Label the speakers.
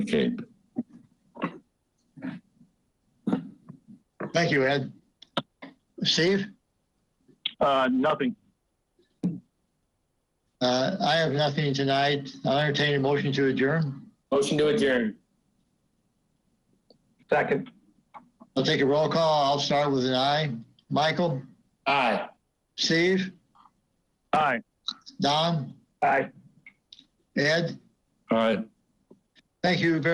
Speaker 1: Okay,
Speaker 2: Thank you, Ed. Steve,
Speaker 3: Uh, nothing.
Speaker 2: uh, I have nothing tonight. I'll entertain a motion to adjourn.
Speaker 4: Motion to adjourn.
Speaker 3: Second.
Speaker 2: I'll take a roll call. I'll start with an aye. Michael,
Speaker 4: Aye.
Speaker 2: Steve,
Speaker 3: Aye.
Speaker 2: Don,
Speaker 3: Aye.
Speaker 2: Ed,
Speaker 1: all right.
Speaker 2: thank you very